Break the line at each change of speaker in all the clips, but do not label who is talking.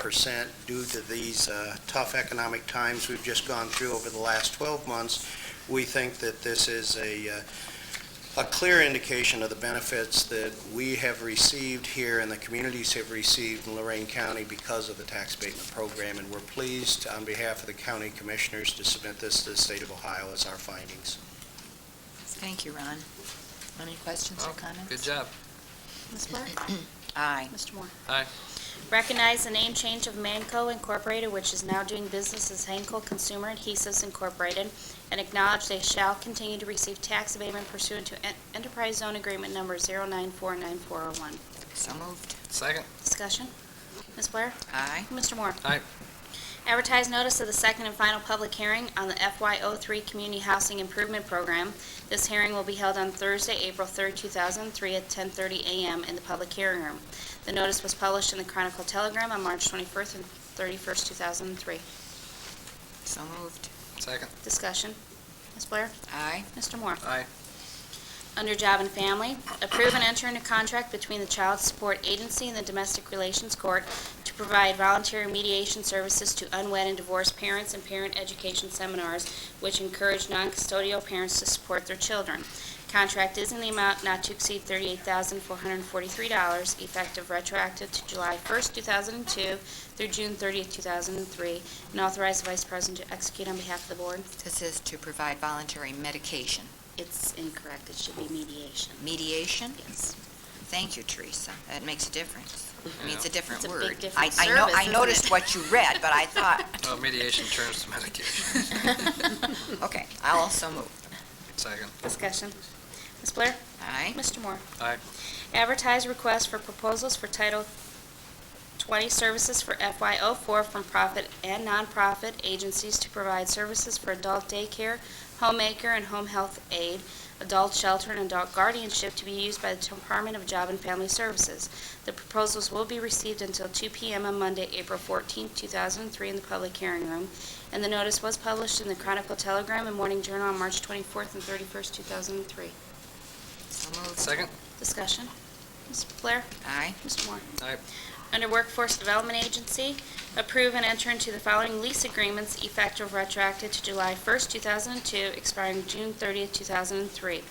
percent due to these uh, tough economic times we've just gone through over the last 12 months. We think that this is a, uh, a clear indication of the benefits that we have received here and the communities have received in Lorraine County because of the tax abatement program, and we're pleased, on behalf of the county commissioners, to submit this to the state of Ohio as our findings.
Thank you, Ron. Any questions or comments?
Oh, Good job.
Ms. Blair?
Aye.
Mr. Moore?
Aye.
Recognize the name change of Manco Incorporated, which is now doing business as Hankel Consumer Adhesives Incorporated, and acknowledge they shall continue to receive tax abatement pursuant to en- Enterprise Zone Agreement Number 0949401.
So moved.
Second.
Discussion? Ms. Blair?
Aye.
Mr. Moore?
Aye.
Advertise notice of the second and final public hearing on the FY03 Community Housing Improvement Program. This hearing will be held on Thursday, April 3, 2003, at 10:30 a.m. in the public hearing room. The notice was published in the Chronicle Telegram on March 21st and 31st, 2003.
So moved.
Second.
Discussion. Ms. Blair?
Aye.
Mr. Moore?
Aye.
Under Job and Family, approve and enter into contract between the Child Support Agency and the Domestic Relations Court to provide voluntary mediation services to unwed and divorced parents and parent education seminars which encourage non-custodial parents to support their children. Contract is in the amount not to exceed $38,443, effective retroactive to July 1st, 2002 through June 30th, 2003, and authorize the Vice President to execute on behalf of the Board.
This is to provide voluntary medication,
It's incorrect. It should be mediation.
mediation.
Yes.
Thank you, Teresa. That makes a difference. I mean, it's a different
It's a
word.
big different
I- I know-
service,
I
isn't
noticed
it?
what you read, but I thought,
Well, Oh, mediation turns to medication.
okay, I'll also move.
Second.
Discussion. Ms. Blair?
Aye.
Mr. Moore?
Aye.
Advertise request for proposals for Title 20 services for FY04 from profit and nonprofit agencies to provide services for adult daycare, homemaker, and home health aid, adult shelter, and adult guardianship to be used by the Department of Job and Family Services. The proposals will be received until 2 p.m. on Monday, April 14, 2003, in the public hearing room, and the notice was published in the Chronicle Telegram and Morning Journal on March 24th and 31st, 2003.
So moved.
Second.
Discussion. Ms. Blair?
Aye.
Mr. Moore?
Aye.
Under Workforce Development Agency, approve and enter into the following lease agreements effective retroactive to July 1st, 2002, expiring June 30th, 2003.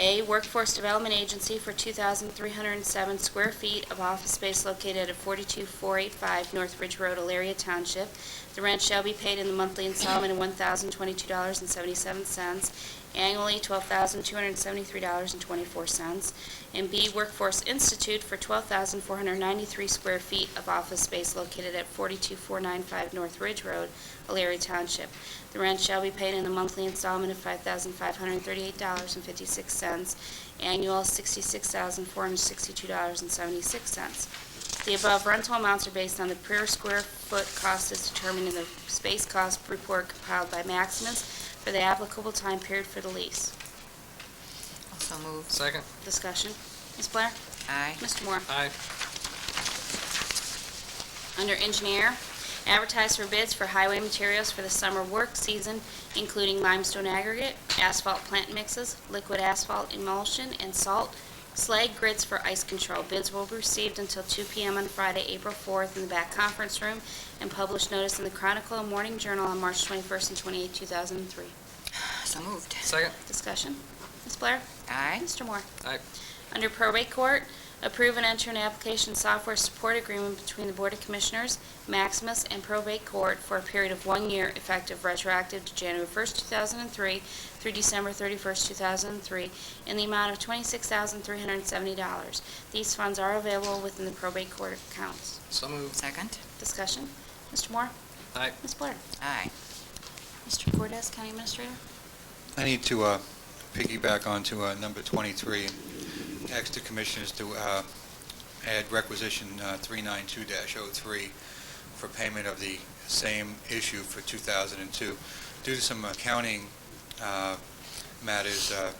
A, Workforce Development Agency for 2,307 square feet of office space located at 42485 North Ridge Road, Elaria Township. The rent shall be paid in the monthly installment of $1,022.77, annually $12,273.24. And B, Workforce Institute for 12,493 square feet of office space located at 42495 North Ridge Road, Alariah Township. The rent shall be paid in a monthly installment of $5,538.56, annual $66,462.76. The above rental amounts are based on the per square foot cost as determined in the space cost report compiled by Maximus for the applicable time period for the lease.
Also moved.
Second.
Discussion. Ms. Blair?
Aye.
Mr. Moore?
Aye.
Under engineer, advertise for bids for highway materials for the summer work season, including limestone aggregate, asphalt plant mixes, liquid asphalt emulsion, and salt, slag grits for ice control. Bids will be received until 2 PM on Friday, April 4th, in the back conference room, and published notice in the Chronicle and Morning Journal on March 21st and 28th, 2003.
So moved.
Second.
Discussion. Ms. Blair?
Aye.
Mr. Moore?
Aye.
Under probate court, approve and enter an application software support agreement between the Board of Commissioners, Maximus, and probate court for a period of one year effective retroactive to January 1st, 2003 through December 31st, 2003, in the amount of $26,370. These funds are available within the probate court accounts.
So moved.
Second.
Discussion. Mr. Moore?
Aye.
Ms. Blair?
Aye.
Mr. Cortez, County Administrator?
I need to uh, piggyback onto uh, number 23 and ask the commissioners to uh, add requisition uh, 392-03 for payment of the same issue for 2002. Due to some accounting uh, matters, uh,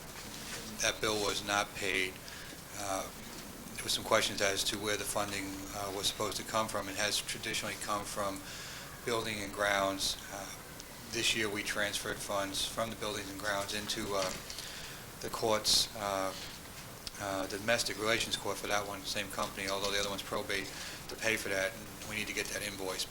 that bill was not paid. Uh, There were some questions as to where the funding uh, was supposed to come from. It has traditionally come from building and grounds, uh, this year, we transferred funds from the buildings and grounds into uh, the courts, uh, uh, domestic relations court for that one, same company, although the other one's probate, to pay for that, and we need to get that invoice